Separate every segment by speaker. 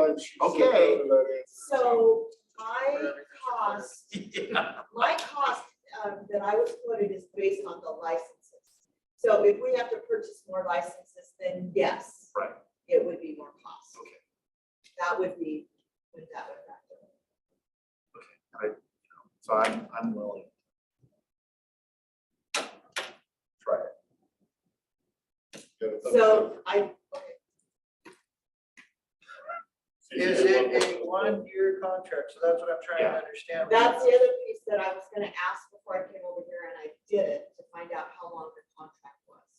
Speaker 1: approach.
Speaker 2: Okay.
Speaker 1: So my cost, my cost um, that I was quoted is based on the licenses. So if we have to purchase more licenses, then yes.
Speaker 2: Right.
Speaker 1: It would be more cost.
Speaker 2: Okay.
Speaker 1: That would be, what that would factor.
Speaker 2: So I'm, I'm willing. Try it.
Speaker 1: So I,
Speaker 3: Is it a one-year contract? So that's what I'm trying to understand.
Speaker 1: that's the other piece that I was gonna ask before I came over here and I did it to find out how long the contract was.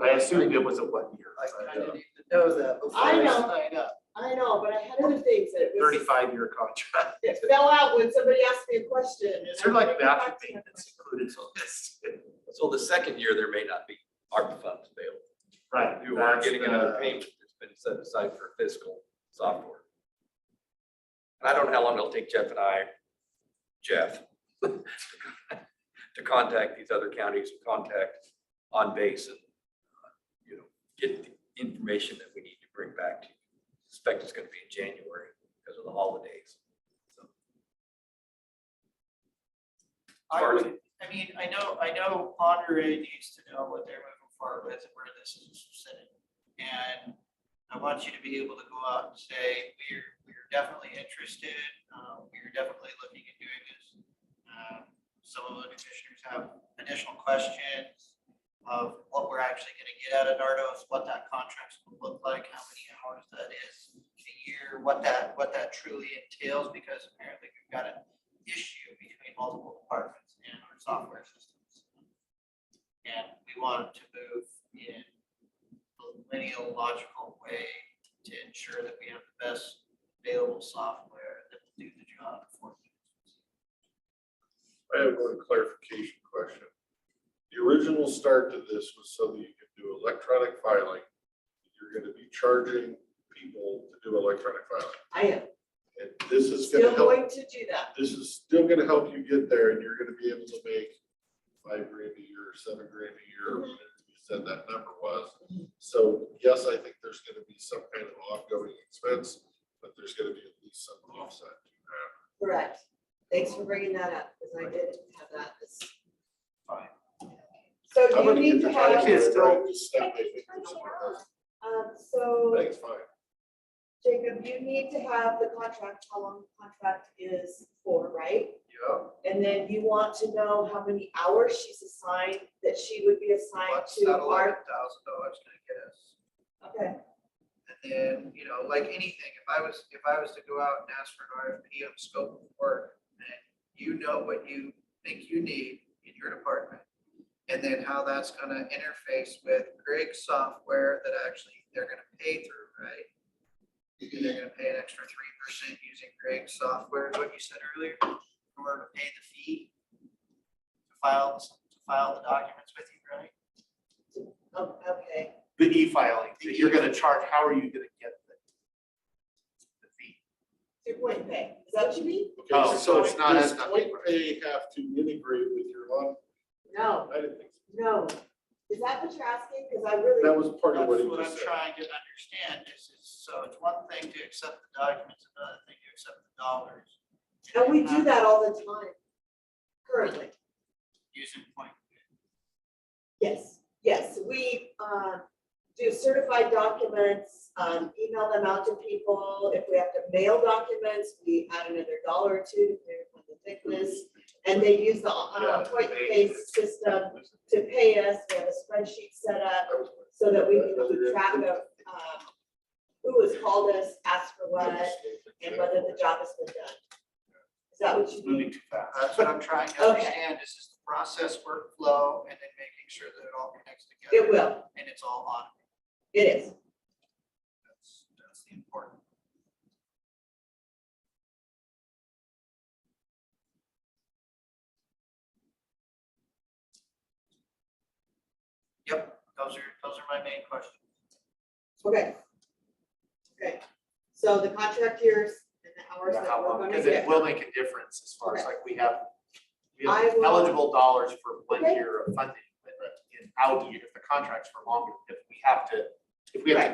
Speaker 2: I assumed it was a one year. uh,
Speaker 3: I kind of need to know that before
Speaker 1: I
Speaker 3: I
Speaker 1: know.
Speaker 3: sign up.
Speaker 1: I know, but I had other things that it was.
Speaker 2: Thirty-five year contract.
Speaker 1: It fell out when somebody asked me a question. and
Speaker 2: Is
Speaker 1: I
Speaker 2: there like
Speaker 1: couldn't get
Speaker 2: bathroom
Speaker 1: back to my
Speaker 2: maintenance included on this?
Speaker 4: So the second year, there may not be ARPA funds available.
Speaker 2: Right.
Speaker 4: You are
Speaker 2: that's
Speaker 4: getting
Speaker 2: the-
Speaker 4: another payment that's been set aside for fiscal software. And I don't know how long it'll take Jeff and I, Jeff, to contact these other counties, contact on base and, uh, you know, get the information that we need to bring back to you. Suspect it's gonna be in January because of the holidays. So
Speaker 3: I would, I mean, I know, I know Monterey needs to know what they're moving forward with and where this is sitting. And I want you to be able to go out and say, we're, we're definitely interested, uh, we're definitely looking at doing this. Um, Some of the commissioners have additional questions of what we're actually gonna get out of Nardos, what that contract's gonna look like, how many hours that is a year, what that, what that truly entails, because apparently we've got an issue between multiple departments and our software systems. And we want to move in a lineal logical way to ensure that we have the best available software that will do the job for you.
Speaker 5: I have one clarification question. The original start to this was so that you could do electronic filing. You're gonna be charging people to do electronic filing.
Speaker 1: I am
Speaker 5: And this is gonna
Speaker 1: still
Speaker 5: help,
Speaker 1: going to do that.
Speaker 5: this is still gonna help you get there and you're gonna be able to make five grand a year, seven grand a year,
Speaker 1: Mhm.
Speaker 5: whatever you said that number was.
Speaker 1: Mhm.
Speaker 5: So yes, I think there's gonna be some kind of ongoing expense, but there's gonna be at least some offset to that.
Speaker 1: Correct. Thanks for bringing that up, because I didn't have that. as-
Speaker 3: Fine.
Speaker 1: So
Speaker 5: I'm
Speaker 1: do you
Speaker 5: gonna get
Speaker 1: need to
Speaker 5: the time
Speaker 1: have,
Speaker 2: It's
Speaker 5: to
Speaker 2: still-
Speaker 5: write this stuff, I think, or something else.
Speaker 1: um, so
Speaker 5: Thanks, fine.
Speaker 1: Jacob, you need to have the contract, how long the contract is for, right?
Speaker 5: Yeah.
Speaker 1: And then you want to know how many hours she's assigned, that she would be assigned
Speaker 3: What's
Speaker 1: to
Speaker 3: that
Speaker 1: our.
Speaker 3: eleven thousand dollars gonna get us?
Speaker 1: Okay,
Speaker 3: And then, you know, like anything, if I was, if I was to go out and ask for an RFP on scope of work, and you know what you think you need in your department, and then how that's gonna interface with Greg's software that actually they're gonna pay through, right? And They're gonna pay an extra three percent using Greg's software, is what you said earlier, in order to pay the fee to file, to file the documents with you, right?
Speaker 1: oh, okay.
Speaker 2: The e-filing, that you're gonna charge, how are you gonna get the the fee?
Speaker 1: Your point pay, is that what you mean?
Speaker 2: Oh,
Speaker 5: Okay,
Speaker 2: so
Speaker 5: so
Speaker 2: it's not as
Speaker 5: does
Speaker 2: nothing.
Speaker 5: point pay have to integrate with your on?
Speaker 1: No,
Speaker 5: I didn't think, so.
Speaker 1: no. Is that what you're asking? Because I really.
Speaker 5: that was part of
Speaker 3: That's
Speaker 5: what he
Speaker 3: what
Speaker 5: just
Speaker 3: I'm
Speaker 5: said.
Speaker 3: trying to understand is, is, so it's one thing to accept the documents, another thing to accept the dollars.
Speaker 1: And we do that all the time. Currently,
Speaker 3: Using point.
Speaker 1: yes, yes, we uh, do certified documents, um, email them out to people. If we have to mail documents, we add another dollar or two depending on the thickness. And they use the uh,
Speaker 2: Yeah,
Speaker 1: point
Speaker 2: they-
Speaker 1: pay system to pay us. We have a spreadsheet set up
Speaker 5: That was-
Speaker 1: so that we can keep track of um, who has called us, asked for what, and whether the job has been done. Is that what you mean?
Speaker 2: Moving too fast.
Speaker 3: That's what I'm trying to
Speaker 1: Okay.
Speaker 3: understand is, is the process workflow and then making sure that it all connects together.
Speaker 1: It will,
Speaker 3: And it's all on.
Speaker 1: it is.
Speaker 3: That's, that's the important. Yep, those are, those are my main questions.
Speaker 1: Okay. Okay, so the contract years and the hours that
Speaker 2: How
Speaker 1: we're
Speaker 2: long,
Speaker 1: gonna
Speaker 2: because it
Speaker 1: get.
Speaker 2: will make a difference as far as like we have, we
Speaker 1: I
Speaker 2: have
Speaker 1: will-
Speaker 2: eligible dollars for one
Speaker 1: Okay.
Speaker 2: year of funding, but in out year, if the contract's for longer, if we have to, if we have to